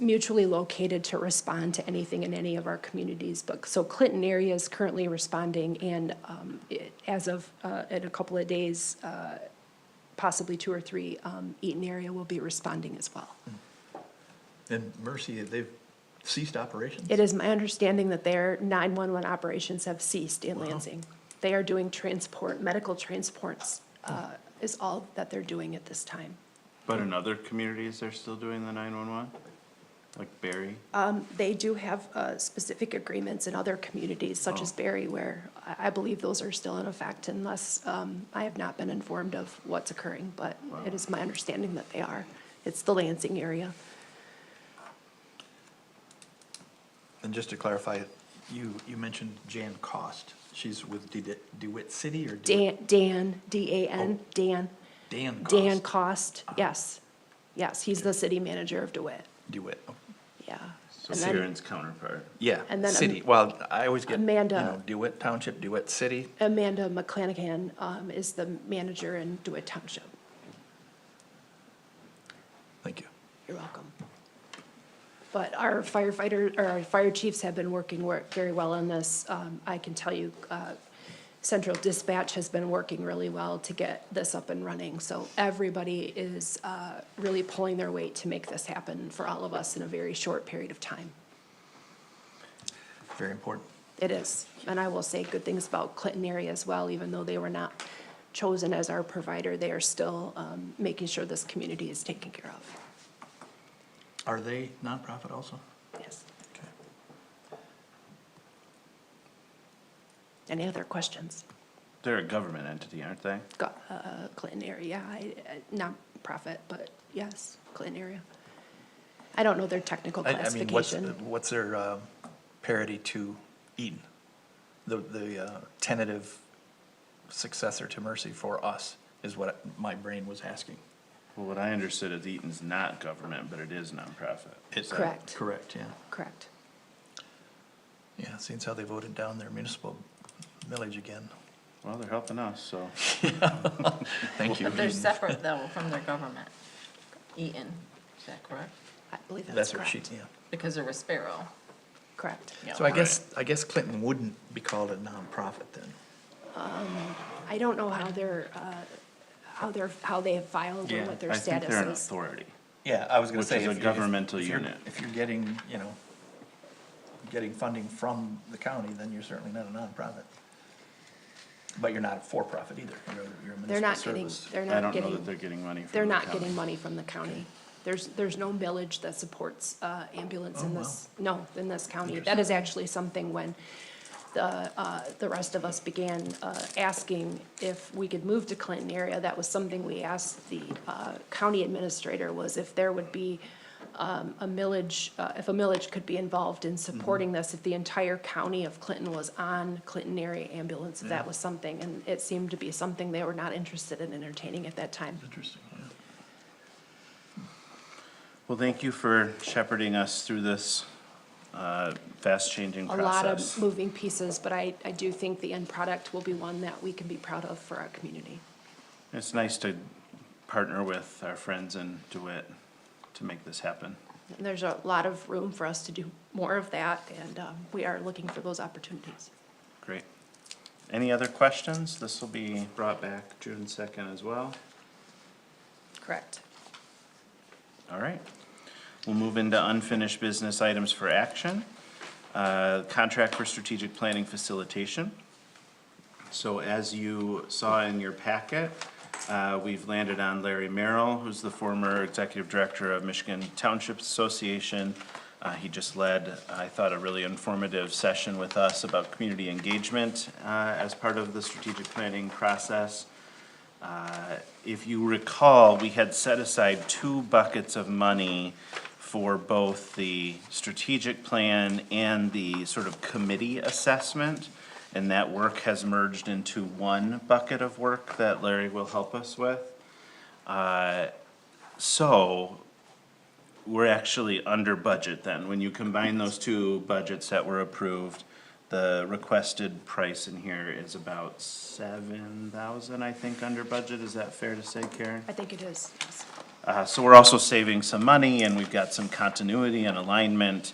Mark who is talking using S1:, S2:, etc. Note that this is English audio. S1: mutually located to respond to anything in any of our communities. But, so Clinton area is currently responding and um, it- as of, uh, in a couple of days, uh, possibly two or three, um, Eaton area will be responding as well.
S2: And Mercy, they've ceased operations?
S1: It is my understanding that their 911 operations have ceased in Lansing. They are doing transport, medical transports uh, is all that they're doing at this time.
S3: But in other communities, they're still doing the nine-one-one? Like Barry?
S1: Uh, They do have uh, specific agreements in other communities such as Barry where I I believe those are still in effect unless um, I have not been informed of what's occurring, but it is my understanding that they are. It's the Lansing area.
S2: And just to clarify, you, you mentioned Jan Cost. She's with De- DeWitt City or? DeWitt-
S1: Dan, Dan, D-A-N, Dan,
S2: Dan Cost?
S1: Dan Cost, yes. Yes, he's the city manager of DeWitt,
S2: DeWitt. oh,
S1: yeah.
S3: So
S1: And then-
S3: Sharon's counterpart.
S2: Yeah,
S1: And then
S2: city.
S1: Am-
S2: Well, I always get, you
S1: Amanda.
S2: know, DeWitt Township, DeWitt City.
S1: Amanda McClanahan um, is the manager in DeWitt Township.
S2: Thank you.
S1: You're welcome. But our firefighter, or our fire chiefs have been working wor- very well on this. Um, I can tell you, uh, Central Dispatch has been working really well to get this up and running. So everybody is uh, really pulling their weight to make this happen for all of us in a very short period of time.
S2: Very important.
S1: It is, and I will say good things about Clinton area as well, even though they were not chosen as our provider, they are still um, making sure this community is taken care of.
S2: Are they nonprofit also?
S1: Yes.
S2: Okay.
S1: Any other questions?
S3: They're a government entity, aren't they?
S1: Go- uh, Clinton area, I- I- nonprofit, but yes, Clinton area. I don't know their technical
S2: I, I mean, what's,
S1: classification.
S2: what's their um, parity to Eden? The, the uh, tentative successor to Mercy for us is what my brain was asking.
S3: Well, what I understood is Eaton's not government, but it is nonprofit.
S2: Is that
S1: Correct.
S2: Correct, yeah.
S1: Correct.
S2: Yeah, seems how they voted down their municipal millage again.
S3: Well, they're helping us, so.
S2: Thank you. Mm-hmm.
S4: But they're separate though from their government, Eaton, is that correct?
S1: I believe that's
S2: That's what she,
S1: correct.
S2: yeah.
S4: Because they're a Sparrow.
S1: Correct.
S4: Yeah.
S2: So I guess, I guess Clinton wouldn't be called a nonprofit then.
S1: I don't know how they're, uh, how they're, how they have filed or what their
S3: I think they're an
S1: status is.
S3: authority.
S2: Yeah, I was gonna
S3: Which
S2: say.
S3: is a
S2: if- if-
S3: governmental
S2: if you're-
S3: unit.
S2: If you're getting, you know, getting funding from the county, then you're certainly not a nonprofit. But you're not a for-profit either, you're, you're a
S1: They're
S2: municipal
S1: not getting,
S2: service.
S1: they're
S3: I
S1: not
S3: don't
S1: getting.
S3: know that they're getting money from
S1: They're
S3: the
S1: not
S3: county.
S1: getting money from the county. There's, there's no millage that supports uh, ambulance in
S2: Oh, wow.
S1: this, no, in this county. That is actually something when the, uh, the rest of us began uh, asking if we could move to Clinton area, that was something we asked the uh, county administrator was if there would be um, a millage, uh, if a millage could be involved
S3: Mm-hmm.
S1: in supporting this, if the entire county of Clinton was on Clinton area ambulance, if that was something, and it seemed to be something they were not interested in entertaining at that time.
S2: Interesting, yeah.
S3: Well, thank you for shepherding us through this, uh, fast-changing
S1: a lot of
S3: process.
S1: moving pieces, but I, I do think the end product will be one that we can be proud of for our community.
S3: It's nice to partner with our friends in DeWitt to make this happen.
S1: And there's a lot of room for us to do more of that, and um, we are looking for those opportunities.
S3: Great. Any other questions? This will be brought back June second as well.
S1: Correct.
S3: All right. We'll move into unfinished business items for action. Uh, Contract for strategic planning facilitation. So as you saw in your packet, uh, we've landed on Larry Merrill, who's the former executive director of Michigan Township Association. Uh, He just led, I thought, a really informative session with us about community engagement uh, as part of the strategic planning process. Uh, If you recall, we had set aside two buckets of money for both the strategic plan and the sort of committee assessment. And that work has merged into one bucket of work that Larry will help us with. Uh, So we're actually under budget then. When you combine those two budgets that were approved, the requested price in here is about seven thousand, I think, under budget. Is that fair to say, Karen?
S1: I think it is. yes.
S3: Uh, So we're also saving some money, and we've got some continuity and alignment